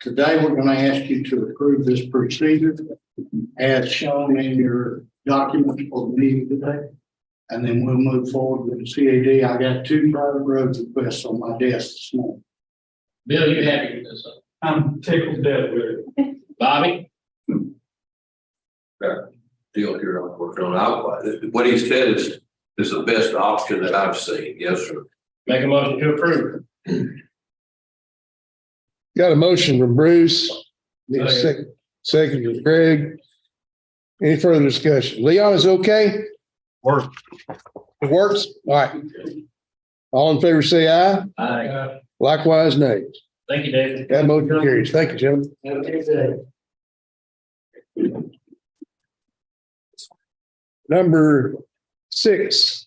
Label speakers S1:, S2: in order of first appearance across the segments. S1: Today, we're going to ask you to approve this procedure as shown in your documents for the meeting today. And then we'll move forward with the CAD. I got two private roads requests on my desk this morning.
S2: Bill, you happy with this? huh?
S3: I'm tickled dead with it.
S2: Bobby?
S4: deal here I'm working on. I, what he said is, is the best option that I've seen. Yes, sir.
S2: Make a motion to approve.
S5: Got a motion from Bruce, Need a
S2: Second.
S5: sec- second from Greg. Any further discussion? Leon is okay?
S6: Works.
S5: It works? All right. All in favor, say aye.
S2: Aye.
S5: Likewise, nay.
S2: Thank you, David.
S5: That motion carries. Thank you, gentlemen.
S1: Have a good day.
S5: Number six.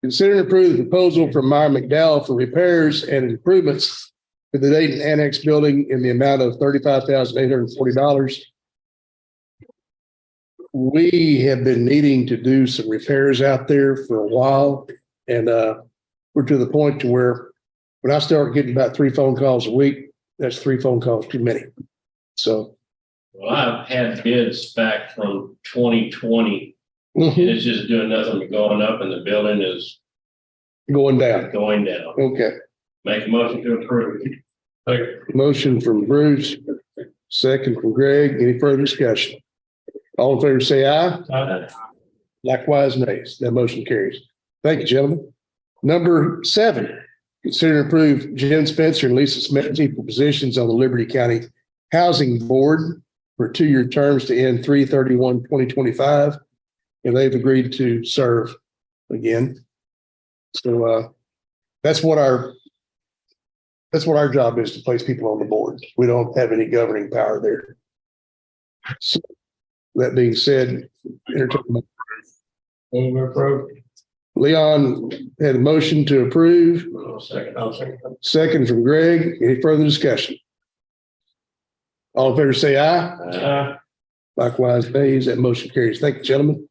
S5: Consider and approve the proposal from Meyer McDowell for repairs and improvements to the Dayton Annex Building in the amount of thirty-five thousand eight hundred and forty dollars. We have been needing to do some repairs out there for a while and uh, we're to the point to where when I start getting about three phone calls a week, that's three phone calls too many. So.
S2: Well, I've had bids back from twenty twenty, and it's just doing nothing but going up, and the building is
S5: Going down.
S2: going down.
S5: Okay.
S2: Make a motion to approve.
S5: Motion from Bruce, second from Greg. Any further discussion? All in favor, say aye.
S2: Aye.
S5: Likewise, nays. That motion carries. Thank you, gentlemen. Number seven, consider and approve Jen Spencer and Lisa Smetsy for positions on the Liberty County Housing Board for two-year terms to end 331-2025, And they've agreed to serve again. So uh, that's what our that's what our job is to place people on the board. We don't have any governing power there. So, That being said, entertain a
S3: Over approved.
S5: Leon had a motion to approve,
S2: I'll second.
S5: second from Greg. Any further discussion? All in favor, say aye.
S2: Aye.
S3: Uh,
S5: Likewise, nays. That motion carries. Thank you, gentlemen.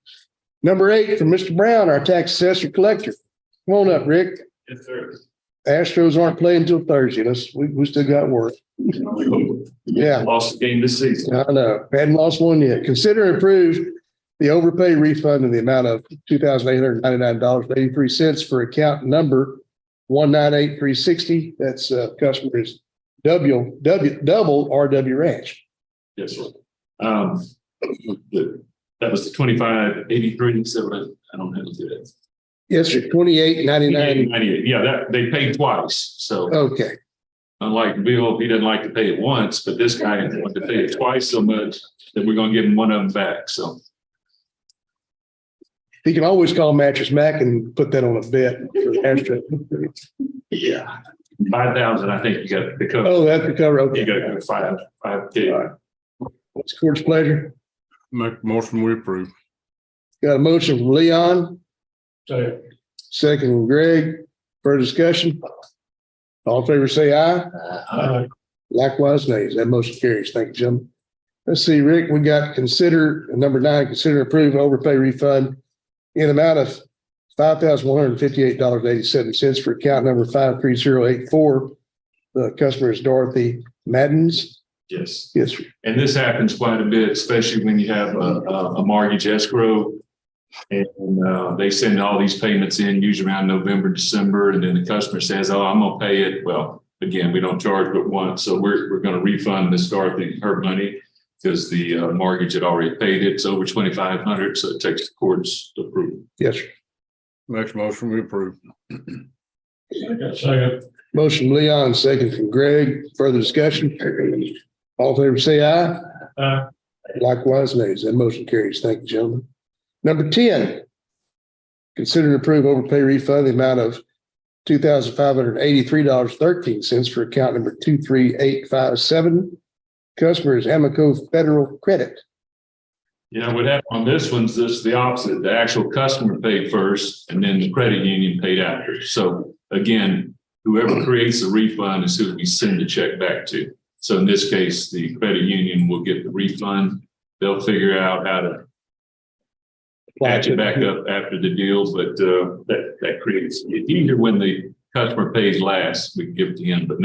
S5: Number eight from Mr. Brown, our tax assessor collector. Come on up, Rick.
S2: Yes, sir.
S5: Astros aren't playing till Thursday. Let's, we, we still got work. Yeah,
S6: Lost the game this season.
S5: I know. Hadn't lost one yet. Consider and approve the overpay refund in the amount of two thousand eight hundred ninety-nine dollars and eighty-three cents for account number one nine eight three sixty. That's uh customer is W, W, double RW Ranch.
S6: Yes, sir. Um, the- that was the twenty-five eighty-three, so I- I don't have to do that.
S5: Yes, sir, twenty-eight ninety-nine.
S6: Ninety-eight, yeah, that, they paid twice, so
S5: Okay,
S6: unlike Bill, he doesn't like to pay it once, but this guy wanted to pay it twice so much that we're gonna give him one of them back, so.
S5: he can always call Mattress Mac and put that on a bet for the Astro.
S6: Yeah. Five thousand, I think you got the cover,
S5: Oh, that's the cover.
S6: you
S5: Okay.
S6: got to go five, five, two.
S5: What's the court's pleasure?
S7: Make motion, we approve.
S5: Got a motion from Leon.
S3: so,
S5: Second from Greg. Further discussion? All in favor, say aye.
S3: uh,
S5: Likewise, nays. That motion carries. Thank you, gentlemen. Let's see, Rick, we got consider, number nine, consider approve overpay refund in amount of five thousand one hundred fifty-eight dollars eighty-seven cents for account number five three zero eight four. The customer is Dorothy Maddens.
S6: Yes.
S5: Yes, sir.
S6: And this happens quite a bit, especially when you have a, a a mortgage escrow. And, uh, they send all these payments in usually around November, December, and then the customer says, oh, I'm gonna pay it. Well, again, we don't charge but once, so we're, we're gonna refund Miss Dorothy her money. Because the uh, mortgage had already paid it. It's over twenty-five hundred, so it takes the court's approval.
S5: yes, sir.
S7: Next motion, we approve.
S3: so,
S5: Motion from Leon, second from Greg. Further discussion? All in favor, say aye.
S3: uh,
S5: Likewise, nays. That motion carries. Thank you, gentlemen. Number ten. Consider and approve overpay refund in the amount of two thousand five hundred eighty-three dollars thirteen cents for account number two three eight five seven. Customer is Amoco Federal Credit.
S6: Yeah, what happened on this one's just the opposite. The actual customer paid first and then the credit union paid after. So again, whoever creates the refund is who we send the check back to. So in this case, the credit union will get the refund. They'll figure out how to patch it back up after the deal, but uh, that, that creates, it's easier when the customer pays last, we give it to him, but